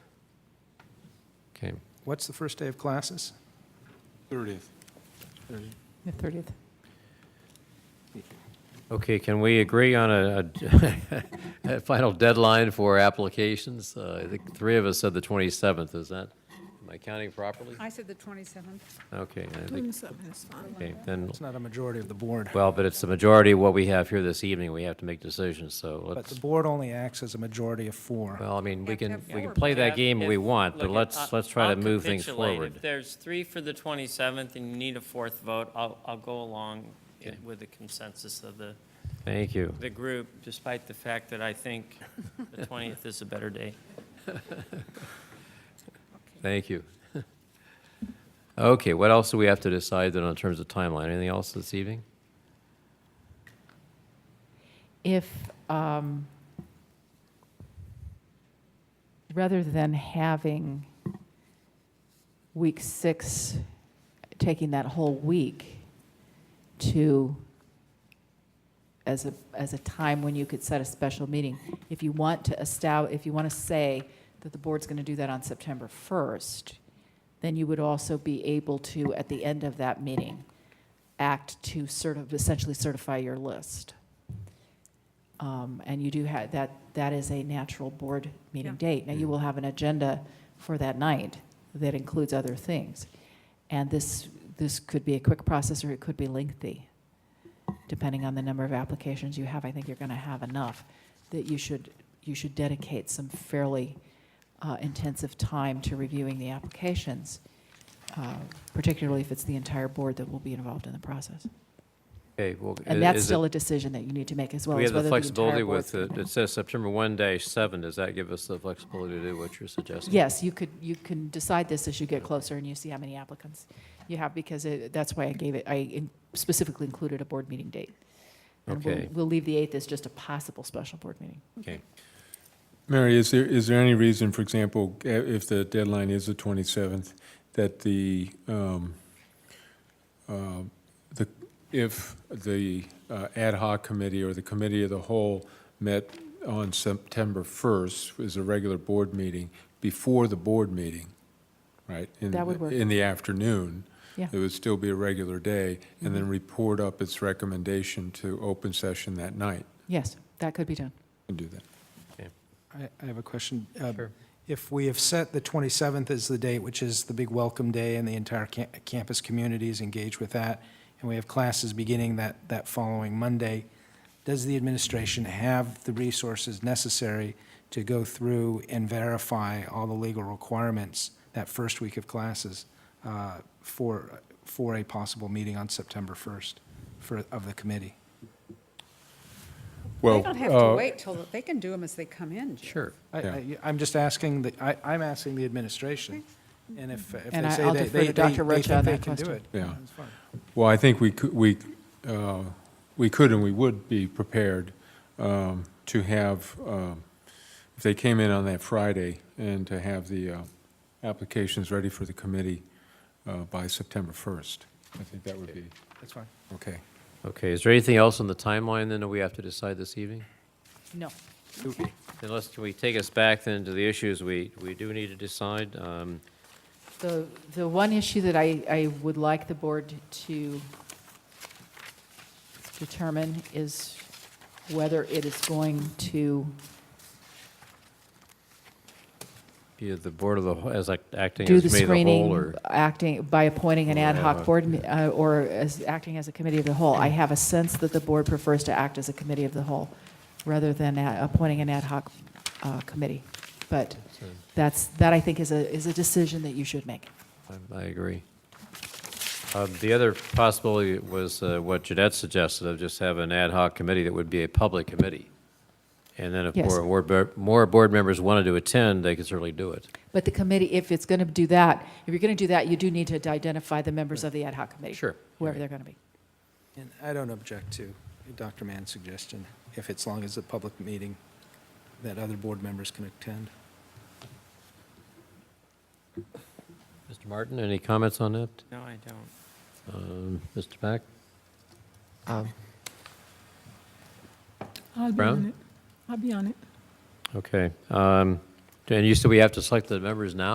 Okay. What's the first day of classes? 30th. The 30th. Okay, can we agree on a, a- a final deadline for applications? Uh, I think three of us said the 27th, is that, am I counting properly? I said the 27th. Okay, I think, Twenty-seven is fine. okay, then, It's not a majority of the board, well, but it's the majority of what we have here this evening, we have to make decisions, so but the let's, board only acts as a majority of four. well, I mean, we Yeah, can, have we can four. play that If- game we if- uh, want, but look, I- let's, let's try to I'll move things capitulate. forward. If there's three for the 27th and you need a fourth vote, I'll, I'll go along it Okay. with the consensus of the, Thank you. the group, despite the fact that I think the 20th is a better day. Thank you. Okay, what else do we have to decide then in terms of timeline? Anything else this evening? If, um, rather than having week six, taking that whole week to, as a, as a time when you could set a special meeting, if you want to establish, if you want to say that the board's going to do that on September 1st, then you would also be able to, at the end of that meeting, act to sort of, essentially certify your list. Um, And you do have, that, that is a natural board meeting Yeah. date. Mm. Now, you will have an agenda for that night that includes other things. And this, this could be a quick process, or it could be lengthy, depending on the number of applications you have. I think you're going to have enough that you should, you should dedicate some fairly uh, intensive time to reviewing the applications, uh, particularly if it's the entire board that will be involved in the process. Okay, well. i- And that's is it- still a decision that you need to make as well We as have the whether the flexibility entire board's with, going it It says September 1 dash 7, does that give us the flexibility to do what you're suggesting? Yes, you could, you can decide this as you get closer and you see how many applicants you have, because it- that's why I gave it, I in- specifically included a board meeting date. And we'll- Okay. We'll leave the 8th as just a possible special board meeting. Okay, Mary, is there, is there any reason, for example, i- if the deadline is the 27th, that the, um, um, the, if the uh, ad hoc committee or the committee of the whole met on September 1st, is a regular board meeting, before the board meeting, right? in- That would work. In the afternoon. Yeah. It would still be a regular day, and then report up its recommendation to open session that night, Yes, that could be done. and do that. I, I have a question. Uh, Sure. If we have set the 27th as the date, which is the big welcome day and the entire ca- campus community is engaged with that, and we have classes beginning that, that following Monday, does the administration have the resources necessary to go through and verify all the legal requirements that first week of classes uh, for, for a possible meeting on September 1st for, of the committee? They Well, don't have to uh, wait till, they can do them as they come in. Jim. sure. I- Yeah. I, I'm just asking, the I, I'm asking the administration, and if, if And they I- say I'll they, defer they, they to Dr. they Rocha think on they that can do question. it. Yeah. that's fine. Well, I think we could, we, uh, we could and we would be prepared um, to have, um, if they came in on that Friday, and to have the uh, applications ready for the committee uh, by September 1st. I think that would be, That's fine. okay. Okay, is there anything else on the timeline then that we have to decide this evening? No. Unless, can we take us back then to the issues we, we do need to decide? Um, The, the one issue that I, I would like the board to determine is whether it is going to Be it the board of the, wh- as act- acting do as the committee of the whole, screening, or? acting, by appointing an ad hoc board, me- uh, or as, acting as a committee of the whole. I have a sense that the board prefers to act as a committee of the whole, rather than a- appointing an ad hoc uh, committee. But that's, that I think is a, is a decision that you should make. I- I agree. Um, The other possibility was uh, what Jeanette suggested, of just have an ad hoc committee that would be a public committee. And then if Yes. more, board ber- more board members wanted to attend, they could certainly do it. But the committee, if it's going to do that, if you're going to do that, you do need to identify the members of the ad hoc committee. Sure. Whoever they're going to be. And I don't object to Dr. Mann's suggestion, if it's long as a public meeting that other board members can attend. Mr. Martin, any comments on that? No, I don't. Um, Mr. Pack? I'll be Brown? on it. I'll be on it. Okay. Um, And you said we have to select the members now?